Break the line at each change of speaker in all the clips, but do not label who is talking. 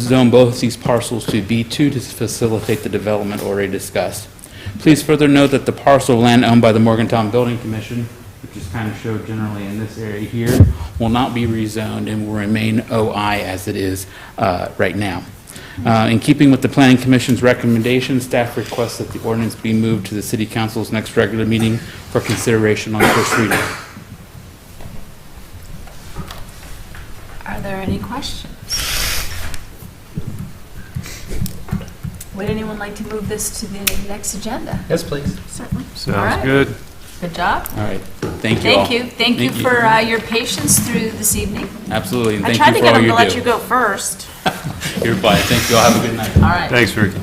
zone both these parcels to B2 to facilitate the development already discussed. Please further note that the parcel of land owned by the Morgantown Building Commission, which is kind of showed generally in this area here, will not be rezoned and will remain OI as it is uh, right now. Uh, In keeping with the Planning Commission's recommendation, staff requests that the ordinance be moved to the City Council's next regular meeting for consideration on first reading.
Are there any questions? Would anyone like to move this to the next agenda?
Yes, please.
Certainly. All
Sounds
right.
good.
Good job.
All right, thank you all.
Thank you. Thank you for uh, your patience through this evening.
Absolutely, and
I
thank
tried to
you for
get
all
him to
you
let you
do.
go first.
You're fine, thank you all, have a good night.
All right.
Thanks, Ricky.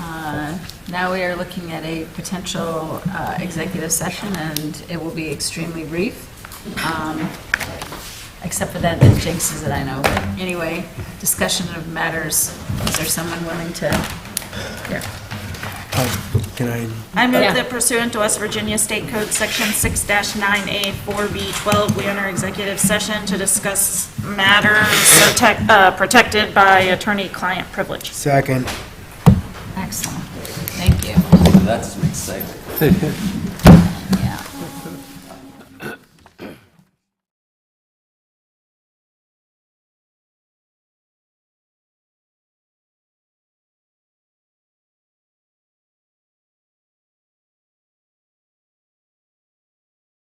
Uh, Now we are looking at a potential uh, executive session, and it will be extremely brief, um, except for that, that jinxes it, I know. But anyway, discussion of matters, is there someone willing to? Here.
Can I,
I
Yeah.
move that pursuant to West Virginia State Code Section 6-9A 4B12, we enter executive session to discuss matters protect- uh, protected by attorney-client privilege.
second.
Excellent. Thank you.
That's exciting.